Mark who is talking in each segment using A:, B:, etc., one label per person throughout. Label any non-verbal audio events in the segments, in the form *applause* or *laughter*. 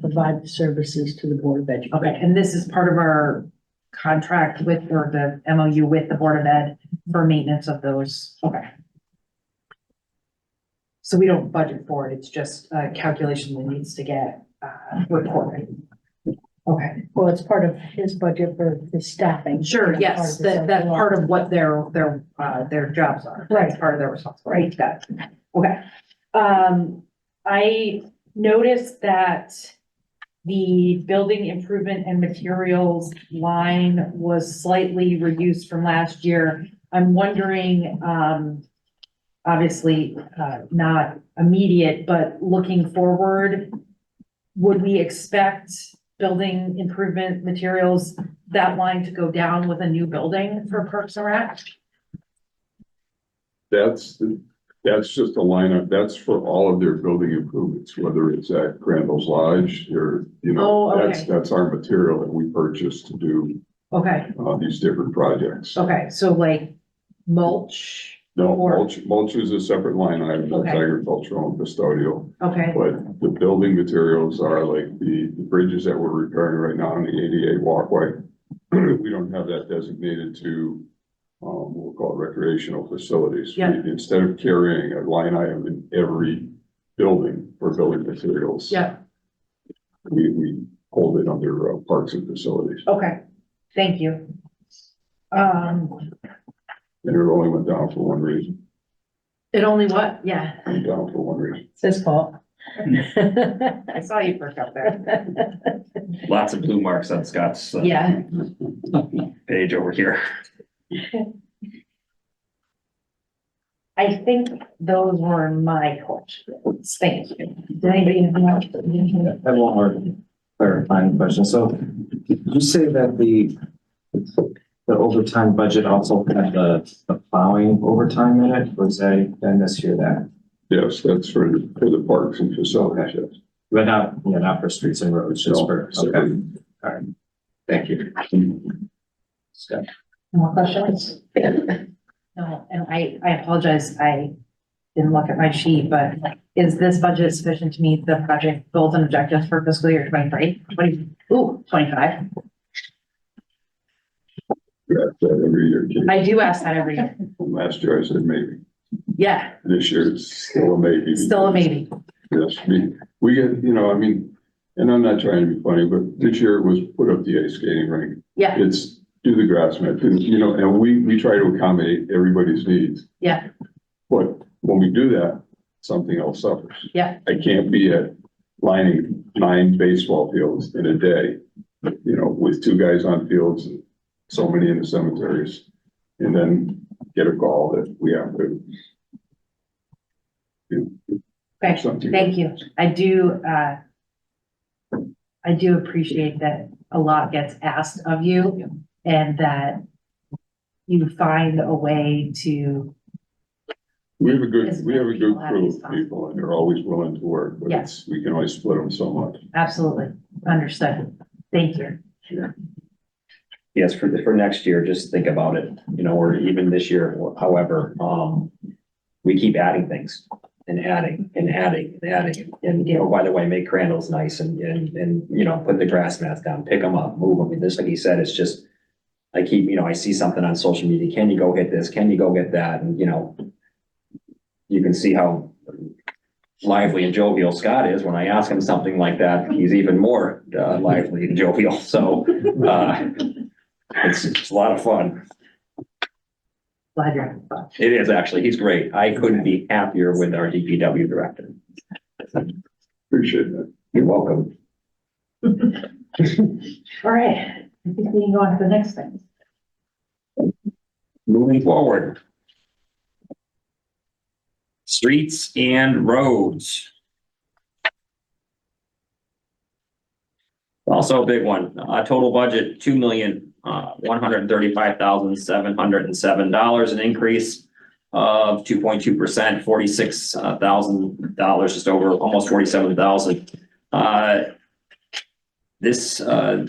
A: provide the services to the Board of
B: Okay,
A: Education.
B: and this is part of our contract with, or the MOU with the Board of Ed for maintenance of those, okay. So we don't budget for it, it's just a calculation that needs to get, uh, reported. Okay,
A: Well, it's part of his budget for the staffing.
B: sure, yes, that, that's part of what their, their, uh, their jobs are. That's
A: Right.
B: Part of their responsibility, got it, okay. Um, I noticed that the building improvement and materials line was slightly reduced from last year. I'm wondering, um, obviously, uh, not immediate, but looking forward, would we expect building improvement materials, that line to go down with a new building for Parks and Rec?
C: That's, that's just a lineup, that's for all of their building improvements, whether it's at Crandall's Lodge or, you
B: Oh,
C: know,
B: okay.
C: that's, that's our material that we purchase to do,
B: Okay,
C: uh, these different projects.
B: okay, so like mulch,
C: No,
B: Or-
C: mulch, mulch is a separate line item, that's
B: Okay.
C: agricultural and custodial,
B: okay,
C: but the building materials are like the, the bridges that we're repairing right now on the ADA walkway. *clears throat* We don't have that designated to, um, we'll call it recreational facilities.
B: Yeah.
C: We- Instead of carrying a line item in every building for building materials.
B: yeah,
C: We, we hold it under uh, parks and facilities,
B: okay, thank you. Um,
C: and it only went down for one reason,
B: it only what, yeah,
C: went down for one reason.
A: It's his fault.
B: I saw you perk up there,
D: Lots of blue marks on Scott's uh,
B: yeah.
D: page over here.
B: I think those were my questions, thank you. Did anybody have more?
E: I have one more clarifying question. So did you say that the the overtime budget also had the the plowing overtime in it, or is that, did I mishear that?
C: Yes, that's for, for the parks and facilities, yes.
E: But not, yeah, not for streets and roads, just for, okay,
C: So,
E: all right. Thank you. Scott.
B: More questions? No, and I, I apologize, I didn't look at my sheet, but is this budget sufficient to meet the project goals and objectives for fiscal year 23, 20 ooh, 25?
C: we ask that every year, Kate.
B: I do ask that every year.
C: Last year I said maybe.
B: Yeah,
C: This year it's still a maybe.
B: still a maybe.
C: Yes, we, we get, you know, I mean, and I'm not trying to be funny, but this year it was put up the ice skating rink.
B: Yeah,
C: It's do the grass mat, do- you know, and we, we try to accommodate everybody's needs.
B: Yeah.
C: But when we do that, something else suffers.
B: Yeah.
C: I can't be at lining nine baseball fields in a day, you know, with two guys on fields and so many in the cemeteries. And then get a call that we have to. do
B: Okay,
C: something.
B: thank you. I do, uh, I do appreciate that a lot gets asked of you and that you find a way to,
C: We have a good,
B: As
C: we have a
B: many
C: good
B: people
C: crew
B: as
C: of people and they're always willing to work, but
B: Yeah.
C: it's, we can only split them so much.
B: absolutely, understood. Thank you.
D: Yes, for, for next year, just think about it, you know, or even this year, however, um, we keep adding things and adding and adding and adding. And, you know, by the way, make Crandall's nice and, and, and, you know, put the grass mats down, pick them up, move them. And just like he said, it's just, I keep, you know, I see something on social media, can you go get this? Can you go get that? And, you know, you can see how lively and jovial Scott is. When I ask him something like that, he's even more uh, lively and jovial. So, uh, it's, it's a lot of fun.
B: Glad you're having fun.
D: It is actually, he's great. I couldn't be happier with our DPW director.
C: Appreciate that.
D: You're welcome.
B: All right, I think we can go on to the next thing.
D: Moving forward. Streets and roads. Also a big one, uh, total budget, two million, uh, one hundred and thirty-five thousand, seven hundred and seven dollars, an increase of two point two percent, forty-six uh, thousand dollars, just over, almost forty-seven thousand. Uh, this, uh,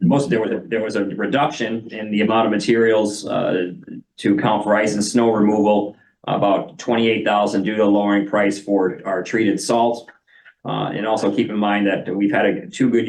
D: most, there was, a- there was a reduction in the amount of materials, uh, to account for ice and snow removal, about twenty-eight thousand due to lowering price for our treated salt. Uh, and also keep in mind that we've had a- two good